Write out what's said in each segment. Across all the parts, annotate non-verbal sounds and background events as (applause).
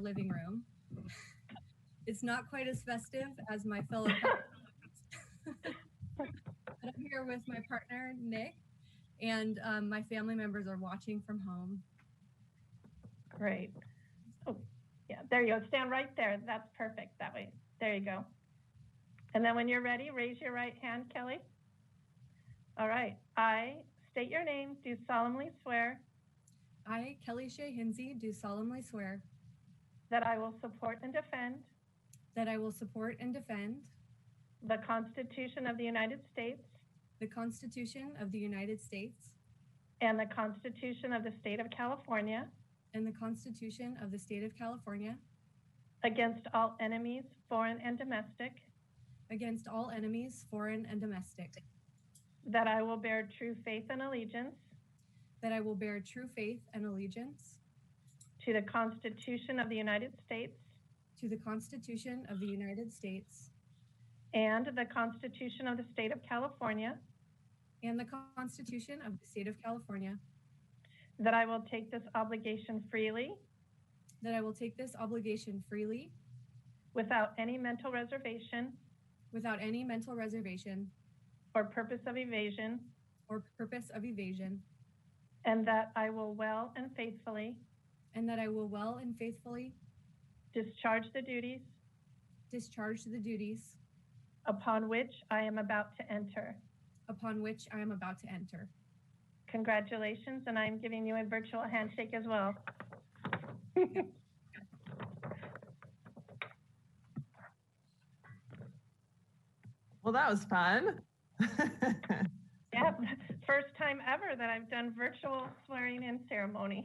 living room. It's not quite as festive as my fellow. Cowboys. but I'm here with my partner, Nick, and um, my family members are watching from home. Great. Oh, yeah, there you go. Stand right there. That's perfect. That way. There you go. And then when you're ready, raise your right hand, Kelly. All right. I state your name, do solemnly swear I, Kelly Shea Hinsey, do solemnly swear that I will support and defend that I will support and defend the Constitution of the United States the Constitution of the United States and the Constitution of the State of California and the Constitution of the State of California against all enemies, foreign and domestic, against all enemies, foreign and domestic, that I will bear true faith and allegiance that I will bear true faith and allegiance to the Constitution of the United States to the Constitution of the United States and the Constitution of the State of California and the Constitution of the State of California, That I will take this obligation freely, that I will take this obligation freely, without any mental reservation without any mental reservation or purpose of evasion, or purpose of evasion, and that I will well and faithfully and that I will well and faithfully discharge the duties discharge the duties upon which I am about to enter. upon which I am about to enter. Congratulations, and I am giving you a virtual handshake as well. Well, that was fun. (laughs) Yep, (laughs) first time ever that I've done virtual swearing-in ceremony.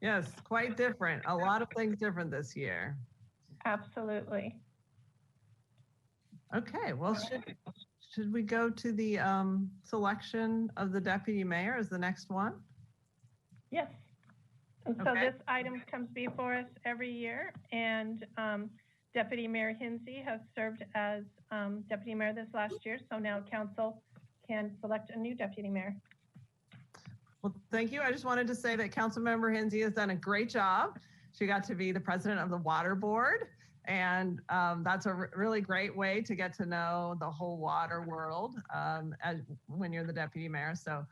yes, quite different. A lot of things different this year. Absolutely. Okay, well, should, should we go to the um, selection of the deputy mayor as the next one? Yes. And so Okay. this item comes before us every year, and um, Deputy Mayor Hinsey has served as um, deputy mayor this last year, so now council can select a new deputy mayor. Well, thank you. I just wanted to say that Councilmember Hensy has done a great job. She got to be the president of the water board. And um, that's a r- really great way to get to know the whole water world um, as, when you're the deputy mayor. So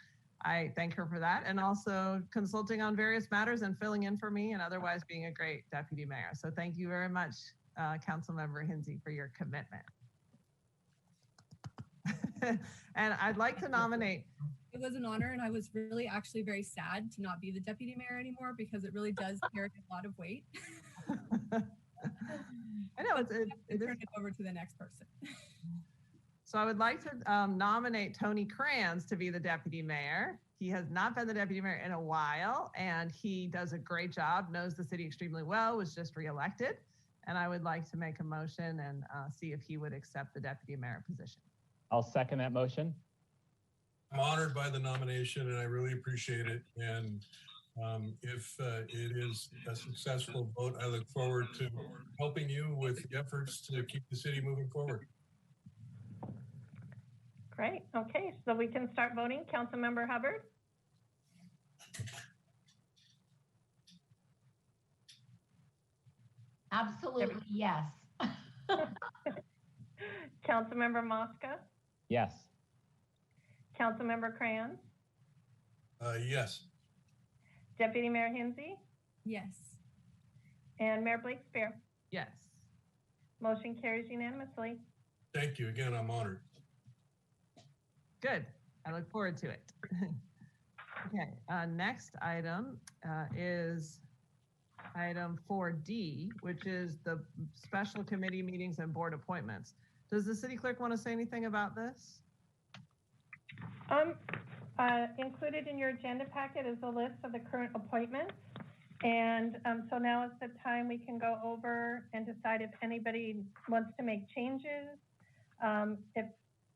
I thank her for that and also consulting on various matters and filling in for me and otherwise being a great deputy mayor. So thank you very much, uh, Councilmember Hensy, for your commitment. (laughs) and I'd like to nominate It was an honor, and I was really actually very sad to not be the deputy mayor anymore because it really does carry a lot of weight. I know it's it, it is. Turn it over to the next person. So I would like to um, nominate Tony Kranz to be the deputy mayor. He has not been the deputy mayor in a while, and he does a great job. Knows the city extremely well. Was just reelected, and I would like to make a motion and uh, see if he would accept the deputy mayor position. I'll second that motion. I'm honored by the nomination and I really appreciate it. And um, if uh, it is a successful vote, I look forward to helping you with the efforts to keep the city moving forward. Great, okay, so we can start voting. Councilmember Hubbard, Absolutely, yes. Councilmember Mosca, Yes. Councilmember Cran, Uh, yes, Deputy Mayor Hinsey, Yes. and Mayor Blakespear. Yes. Motion carries unanimously. thank you again. I'm honored. Good. I look forward to it. (laughs) okay. Uh, next item uh, is item 4D, which is the special committee meetings and board appointments. Does the city clerk want to say anything about this? Um, uh, included in your agenda packet is a list of the current appointments. And, um, so now is the time we can go over and decide if anybody wants to make changes. Um, if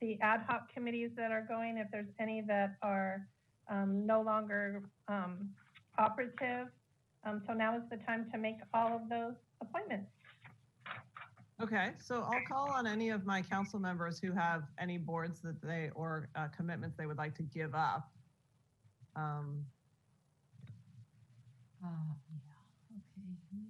the ad hoc committees that are going, if there's any that are, um, no longer, um, operative. Um, so now is the time to make all of those appointments. Okay, so I'll call on any of my council members who have any boards that they or uh, commitments they would like to give up. Um, Uh, yeah, okay.